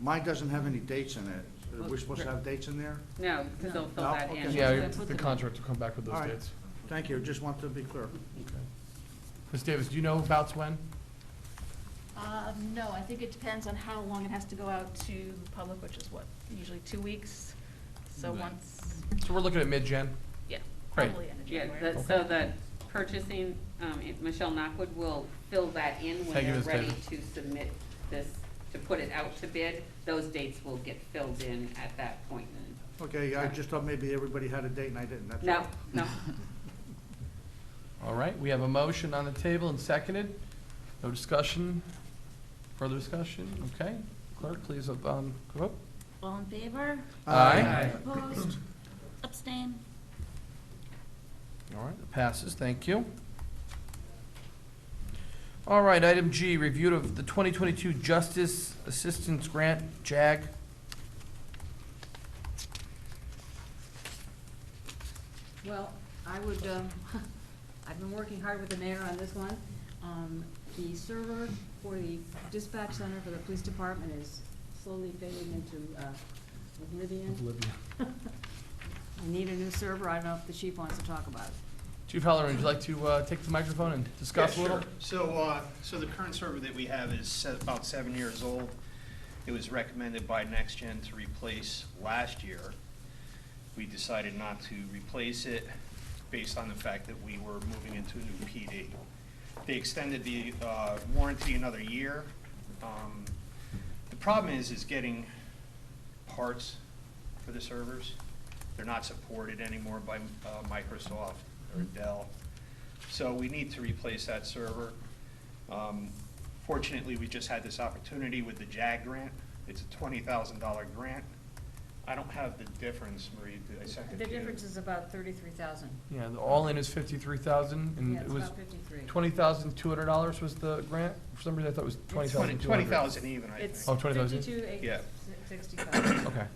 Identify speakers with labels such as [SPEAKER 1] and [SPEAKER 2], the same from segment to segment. [SPEAKER 1] Mine doesn't have any dates in it. Are we supposed to have dates in there?
[SPEAKER 2] No, because they'll fill
[SPEAKER 1] No,
[SPEAKER 2] that in.
[SPEAKER 1] okay.
[SPEAKER 3] Yeah,
[SPEAKER 2] That's what
[SPEAKER 3] the contract will come back with
[SPEAKER 1] All
[SPEAKER 3] those
[SPEAKER 1] right.
[SPEAKER 3] dates.
[SPEAKER 1] Thank you, just want to be clear.
[SPEAKER 3] Ms. Davis, do you know about when?
[SPEAKER 4] Uh, No, I think it depends on how long it has to go out to the public, which is what, usually two weeks? So
[SPEAKER 3] Right.
[SPEAKER 4] once,
[SPEAKER 3] So we're looking at mid-gen?
[SPEAKER 4] yeah,
[SPEAKER 3] Great.
[SPEAKER 4] probably end of
[SPEAKER 2] Yeah,
[SPEAKER 4] January.
[SPEAKER 2] that, so the purchasing, um, it- Michelle Knockwood will fill that in when
[SPEAKER 3] Thank you,
[SPEAKER 2] they're
[SPEAKER 3] Ms.
[SPEAKER 2] ready
[SPEAKER 3] Davis.
[SPEAKER 2] to submit this, to put it out to bid. Those dates will get filled in at that point.
[SPEAKER 1] Okay, I just thought maybe everybody had a date and I didn't, that's
[SPEAKER 2] No,
[SPEAKER 1] all.
[SPEAKER 2] no,
[SPEAKER 3] All right, we have a motion on the table and seconded. No discussion? Further discussion? Okay. Clerk, please, um, vote.
[SPEAKER 5] All in favor?
[SPEAKER 3] Aye.
[SPEAKER 5] Opposed? Abstain?
[SPEAKER 3] All right, it passes, thank you. All right, item G, review of the 2022 Justice Assistance Grant, JAG.
[SPEAKER 6] Well, I would, um, I've been working hard with the mayor on this one. Um, The server for the dispatch center for the police department is slowly fading into uh, oblivion. I need a new server, I don't know if the chief wants to talk about it.
[SPEAKER 3] Chief Halloran, would you like to uh, take the microphone and discuss a
[SPEAKER 7] Yeah,
[SPEAKER 3] little?
[SPEAKER 7] sure. So, uh, so the current server that we have is se- about seven years old. It was recommended by NextGen to replace last year. We decided not to replace it based on the fact that we were moving into a new PD. They extended the uh, warranty another year. Um, The problem is, is getting parts for the servers. They're not supported anymore by uh, Microsoft or Dell. So we need to replace that server. Um, Fortunately, we just had this opportunity with the JAG grant. It's a twenty thousand dollar grant. I don't have the difference, Marie, did I send it
[SPEAKER 6] The
[SPEAKER 7] to you?
[SPEAKER 6] difference is about thirty-three thousand.
[SPEAKER 3] Yeah, the all-in is 53,000, and
[SPEAKER 6] Yeah,
[SPEAKER 3] it
[SPEAKER 6] it's
[SPEAKER 3] was
[SPEAKER 6] about fifty-three.
[SPEAKER 3] $20,200 was the grant? For some reason, I thought it was $20,200.
[SPEAKER 7] Twenty thousand even, I
[SPEAKER 6] It's
[SPEAKER 7] think.
[SPEAKER 3] Oh, 20,000?
[SPEAKER 6] fifty-two, eight,
[SPEAKER 7] Yeah.
[SPEAKER 6] sixty-five.
[SPEAKER 3] Okay.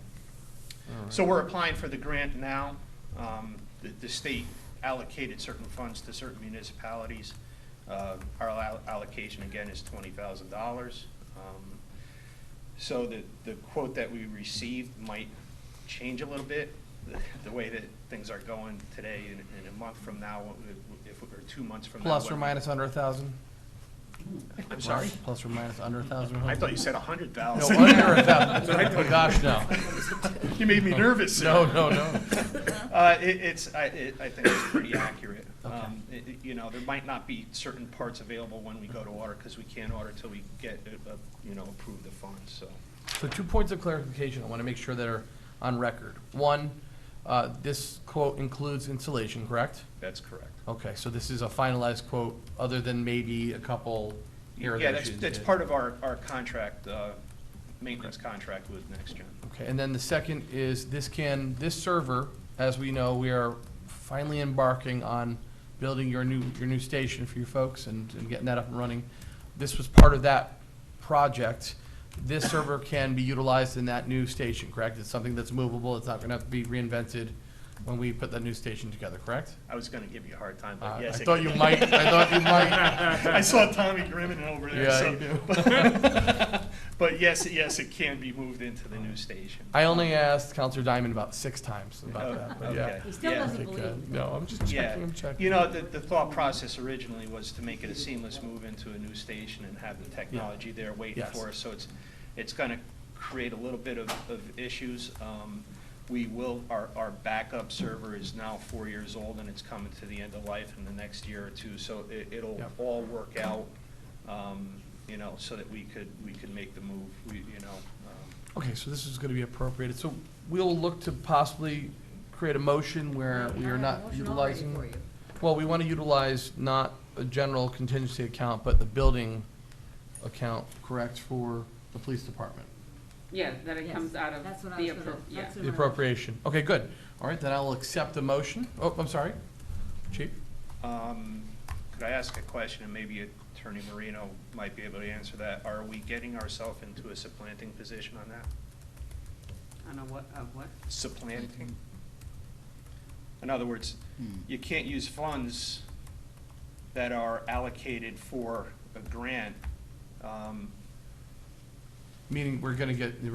[SPEAKER 7] So we're applying for the grant now. Um, The the state allocated certain funds to certain municipalities. Uh, Our allo- allocation, again, is $20,000. Um, So the the quote that we received might change a little bit, the- the way that things are going today and and a month from now, what we- if, we- or two months from now.
[SPEAKER 3] Plus
[SPEAKER 7] what
[SPEAKER 3] or
[SPEAKER 7] we-
[SPEAKER 3] minus under 1,000?
[SPEAKER 7] I'm sorry?
[SPEAKER 3] Plus or minus under 1,000?
[SPEAKER 7] I thought you said
[SPEAKER 3] No,
[SPEAKER 7] 100,000.
[SPEAKER 3] under 1,000. Oh, gosh, no.
[SPEAKER 7] You made me nervous.
[SPEAKER 3] No, no, no.
[SPEAKER 7] Uh, it, it's, I, it, I think it's pretty accurate.
[SPEAKER 3] Okay.
[SPEAKER 7] Um, it- it- you know, there might not be certain parts available when we go to order, because we can't order till we get, uh, uh, you know, approve the funds, so.
[SPEAKER 3] So two points of clarification I want to make sure that are on record. One, uh, this quote includes insulation, correct?
[SPEAKER 7] That's correct.
[SPEAKER 3] Okay, so this is a finalized quote, other than maybe a couple here or
[SPEAKER 7] Yeah,
[SPEAKER 3] there
[SPEAKER 7] that's,
[SPEAKER 3] she
[SPEAKER 7] that's
[SPEAKER 3] did.
[SPEAKER 7] part of our, our contract, uh, maintenance contract with NextGen.
[SPEAKER 3] Okay, and then the second is this can, this server, as we know, we are finally embarking on building your new, your new station for you folks and, and getting that up and running. This was part of that project. This server can be utilized in that new station, correct? It's something that's movable, it's not gonna have to be reinvented when we put that new station together, correct?
[SPEAKER 7] I was gonna give you a hard time,
[SPEAKER 3] Uh,
[SPEAKER 7] but yes.
[SPEAKER 3] I
[SPEAKER 7] it
[SPEAKER 3] thought
[SPEAKER 7] could
[SPEAKER 3] you
[SPEAKER 7] be.
[SPEAKER 3] might, I thought you might.
[SPEAKER 7] I saw Tommy Grimmin over there,
[SPEAKER 3] Yeah,
[SPEAKER 7] so.
[SPEAKER 3] you do.
[SPEAKER 7] but- But yes, yes, it can be moved into the new station.
[SPEAKER 3] I only asked Counselor Diamond about six times about
[SPEAKER 7] Oh,
[SPEAKER 3] that, but yeah.
[SPEAKER 7] Okay.
[SPEAKER 6] He still
[SPEAKER 7] Yeah.
[SPEAKER 3] I
[SPEAKER 6] doesn't
[SPEAKER 3] think, uh,
[SPEAKER 6] believe me.
[SPEAKER 3] No, I'm just
[SPEAKER 7] Yeah,
[SPEAKER 3] checking, I'm checking.
[SPEAKER 7] you know, the, the thought process originally was to make it a seamless move into a new station and have the technology there waiting
[SPEAKER 3] Yes.
[SPEAKER 7] for us, so it's, it's gonna create a little bit of, of issues. Um, We will, our, our backup server is now four years old and it's coming to the end of life in the next year or two, so it, it'll
[SPEAKER 3] Yep.
[SPEAKER 7] all work out, um, you know, so that we could, we could make the move, we, you know. um,
[SPEAKER 3] Okay, so this is gonna be appropriated, so we'll look to possibly create a motion where we are not utilizing. Well, we wanna utilize not a general contingency account, but the building account, correct, for the police department,
[SPEAKER 2] yeah, that it
[SPEAKER 6] Yes,
[SPEAKER 2] comes out of
[SPEAKER 6] that's what I
[SPEAKER 2] the
[SPEAKER 6] was gonna-
[SPEAKER 2] appro, yeah.
[SPEAKER 6] that's what
[SPEAKER 3] the appropriation. Okay, good, all right, then I'll accept the motion, oh, I'm sorry, chief,
[SPEAKER 7] Um, Could I ask a question, and maybe Attorney Marino might be able to answer that? Are we getting ourselves into a supplanting position on that?
[SPEAKER 2] On a what, of what?
[SPEAKER 7] Supplanting? In other words, you can't use funds that are allocated for a grant um,
[SPEAKER 3] meaning we're gonna get the